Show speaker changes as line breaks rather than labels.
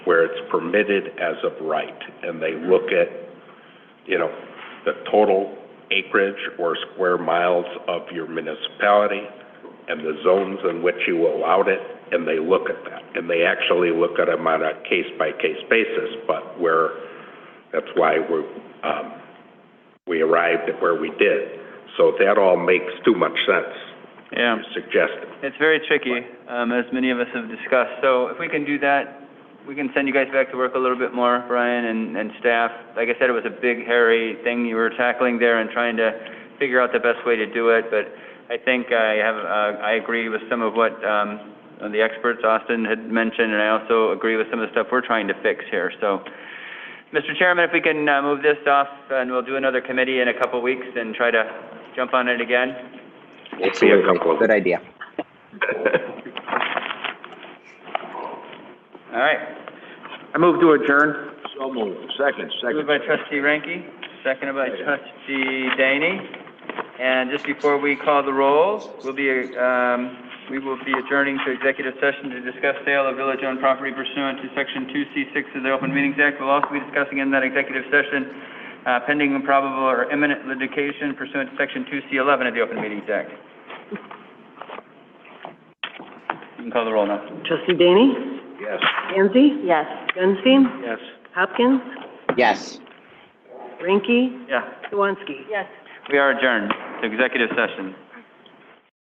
where it's permitted as of right, and they look at, you know, the total acreage or square miles of your municipality and the zones in which you allowed it, and they look at that. And they actually look at them on a case-by-case basis, but where, that's why we're, um, we arrived at where we did. So that all makes too much sense,
Yeah,
you suggested.
it's very tricky, um, as many of us have discussed. So if we can do that, we can send you guys back to work a little bit more, Brian and, and staff. Like I said, it was a big, hairy thing you were tackling there and trying to figure out the best way to do it, but I think I have, uh, I agree with some of what, um, the experts Austin had mentioned, and I also agree with some of the stuff we're trying to fix here, so. Mr. Chairman, if we can, uh, move this off, and we'll do another committee in a couple weeks and try to jump on it again.
We'll see a couple of
Good idea.
All right.
I move to adjourn.
So moved. Second,
Moved by trustee Ranky, seconded by trustee Daney. And just before we call the roll, we'll be, um, we will be adjourning to executive session to discuss sale of village-owned property pursuant to section two C six of the Open Meetings Act. We'll also be discussing in that executive session, uh, pending improbable or imminent litigation pursuant to section two C eleven of the Open Meetings Act. You can call the roll now.
Trustee Daney?
Yes.
Danzy? Yes. Gunstein?
Yes.
Hopkins?
Yes.
Rinky?
Yeah.
Swansky? Yes.
We are adjourned to executive session.